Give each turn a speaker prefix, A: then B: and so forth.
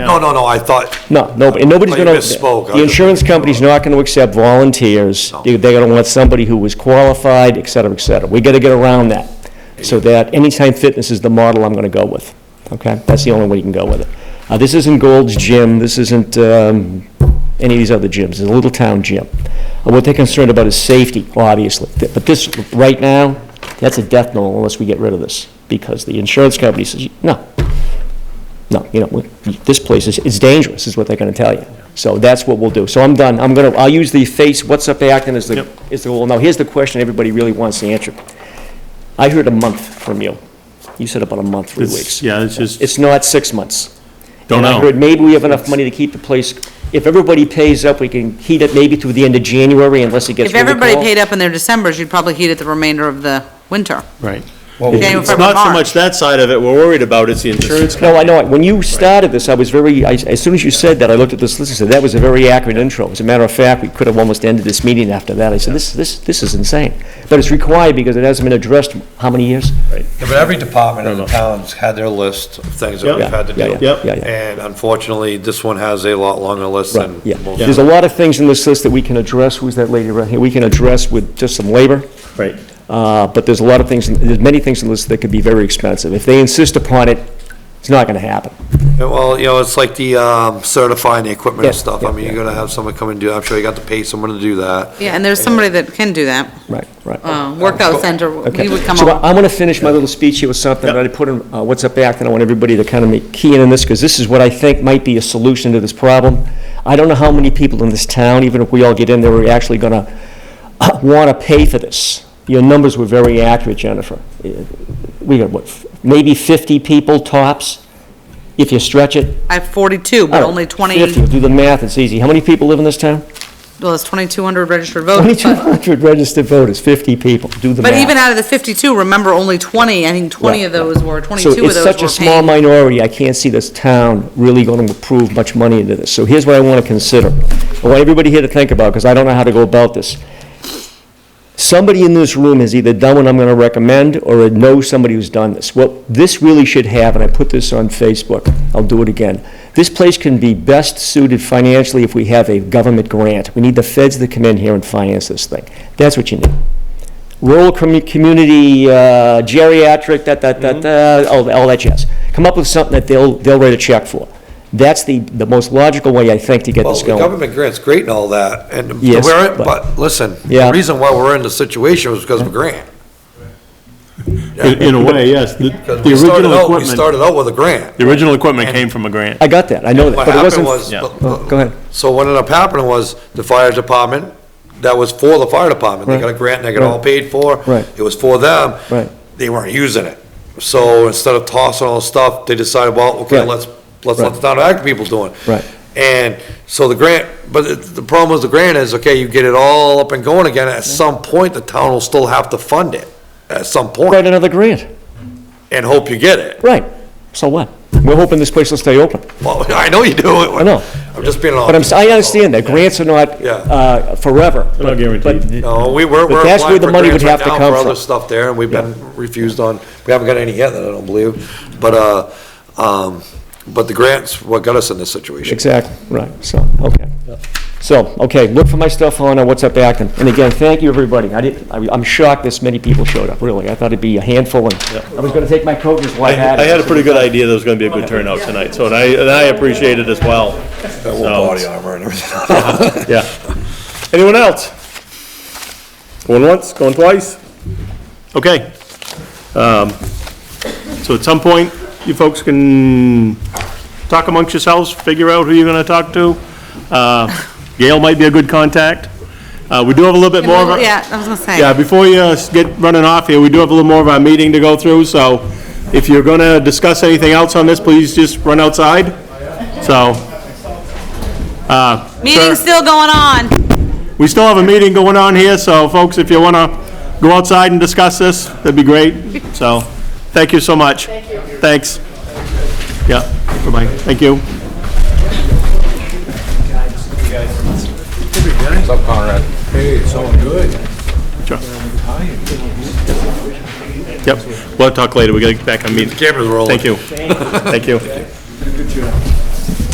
A: no, no, no, I thought,
B: No, no, and nobody's
A: Oh, you
B: gonna.
A: misspoke. I
B: The
A: was-
B: insurance company's not gonna accept volunteers.
A: No.
B: They- They're gonna want somebody who was qualified, et cetera, et cetera. We gotta get around that, so that Anytime Fitness is the model I'm gonna go with, okay? That's the only way you can go with it. Uh, this isn't Gold's Gym, this isn't, um, any of these other gyms, it's a little town gym. Uh, What they're concerned about is safety, obviously, Th- but this, right now, that's a death knell unless we get rid of this, because the insurance company says, no, no, you know, we- this place is, it's dangerous, is what they're gonna tell you. So that's what we'll do. So I'm done. I'm gonna, I'll use the face, what's up Acton as the, is the goal. Now, here's the question everybody really wants to answer. I heard a month from you. You said about a month, three
C: It's-
B: weeks.
C: Yeah, it's just,
B: It's not six months.
C: don't
B: And I heard
C: know.
B: maybe we have enough money to keep the place, if everybody pays up, we can heat it maybe through the end of January unless it gets
D: If
B: really cold.
D: everybody paid up in their Decembers, you'd probably heat it the remainder of the winter.
C: Right.
D: January,
C: It's
D: February,
C: not so
D: March.
C: much that side of it we're worried about, it's the insurance.
B: No, I know, it. when you started this, I was very, I- as soon as you said that, I looked at this list and said, that was a very accurate intro. As a matter of fact, we could have almost ended this meeting after that. I said, this, this, this is insane. But it's required because it hasn't been addressed how many years?
A: Yeah, but every department in the
C: No, no.
A: town's had their list of things that
C: Yeah.
A: we've had to
B: Yeah,
A: do.
B: yeah, yeah, yeah.
A: And unfortunately, this one has a lot longer list
B: Right,
A: than
B: yeah.
A: most.
B: There's a lot of things in this list that we can address, who's that lady right here? We can address with just some labor.
C: Right.
B: Uh, But there's a lot of things, there's many things in this that could be very expensive. If they insist upon it, it's not going to happen.
A: Yeah, Well, you know, it's like the um, certifying the equipment and
B: Yeah,
A: stuff.
B: yeah,
A: I mean, you're gonna have someone come and do, I'm sure you got to pay someone to do that.
D: Yeah, and there's somebody that can do that.
B: Right, right.
D: Uh, Workout center,
B: Okay.
D: we would come
B: So
D: up.
B: I'm going to finish my little speech here with something that I put in uh, What's Up Act, and I want everybody to kind of make key in on this, because this is what I think might be a solution to this problem. I don't know how many people in this town, even if we all get in there, are actually going to want to pay for this. Your numbers were very accurate, Jennifer. Uh, We got, what, f- maybe 50 people tops, if you stretch it?
D: I have 42,
B: I
D: but
B: don't-
D: only
B: 50,
D: 20,
B: do the math, it's easy. How many people live in this town?
D: well, it's 2,200 registered voters. but-
B: 2,200 registered voters, 50 people, do the math.
D: Oh, But even out of the 52, remember only 20, I think 20 of
B: Right, right.
D: those were, 22 of those
B: So
D: were
B: it's such a small
D: paying.
B: minority, I can't see this town really going to approve much money into this. So here's what I want to consider. I want everybody here to think about, because I don't know how to go about this. Somebody in this room has either done what I'm going to recommend, or knows somebody who's done this. What this really should have, and I put this on Facebook, I'll do it again, this place can be best suited financially if we have a government grant. We need the feds to come in here and finance this thing. That's what you need rural commu- community, uh, geriatric, da, da, da, da, uh, all all that jazz. Come up with something that they'll, they'll write a check for. That's the, the most logical way, I think, to get
A: Well,
B: this
A: the
B: going.
A: government grant's great and all that, and
B: Yes,
A: we're, in-
B: but-
A: but listen,
B: Yeah.
A: the reason why we're in the situation was because of a grant.
C: In in a way, yes. The the
A: 'Cause we started
C: original
A: out, we
C: equipment,
A: started out with a grant.
C: the original equipment came from a grant.
B: I got that, I know that,
A: What
B: but it
A: happened
B: wasn't.
A: was,
C: Yeah.
B: Oh, Go ahead.
A: so what ended up happening was the fire department, that was for the fire department. They got a
B: Right.
A: grant, they got it all
B: Right.
A: paid for.
B: Right.
A: It was for them.
B: Right.
A: They weren't using it. So instead of tossing all the stuff, they decided, well, okay,
B: Right.
A: let's, let's let
B: Right.
A: the town of Acton people do it.
B: Right.
A: And so the grant, but it- the problem with the grant is, okay, you get it all up and going again. At some point, the town will still have to fund it, at some
B: Write
A: point,
B: another grant,
A: and hope you get it.
B: right. So what? We're hoping this place will stay open.
A: Well, I know you do.
B: I know.
A: I'm just being
B: But I'm,
A: honest.
B: si understand that, grants are not
A: Yeah.
B: uh, forever.
C: They're not guaranteed.
B: but-
A: No, we were,
B: But
A: we're
B: that's where
A: applying
B: the
A: for
B: money
A: grants
B: would
A: right
B: have to
A: now
B: come
A: for other
B: from.
A: stuff there, and we've been refused on, we haven't got any yet, I don't believe. But, uh, um, but the grants, what got us in this situation.
B: Exactly, right, so, okay. So, okay, look for my stuff on uh, What's Up Acton. And again, thank you, everybody. I didn't, I- I'm shocked this many people showed up, really. I thought it'd be a handful, and I was gonna take my coat and just
C: I
B: white hat.
C: I had a pretty good idea there was gonna be a good turnout tonight, so, and I, and I appreciate it as well.
A: Got a
C: No.
A: little body armor and everything.
C: Yeah. Anyone else? Going once, going twice? Okay. Um, So at some point, you folks can talk amongst yourselves, figure out who you're gonna talk to. Uh, Gail might be a good contact. Uh, We do have a little bit more of a...
D: Yeah, I was gonna say.
C: Yeah, before you uh, get running off here, we do have a little more of our meeting to go through, so if you're gonna discuss anything else on this, please just run outside. So,
D: Meeting's still going on.
C: we still have a meeting going on here, so folks, if you wanna go outside and discuss this, that'd be great. So, thank you so much. Thank you. Thanks. Yeah, bye-bye, thank you.
E: What's up, Conrad? Hey, it's all good.
C: Sure. Yep, we'll talk later, we gotta get back on meeting.
A: Cameras rolling.
C: Thank you, thank you.
E: Good job.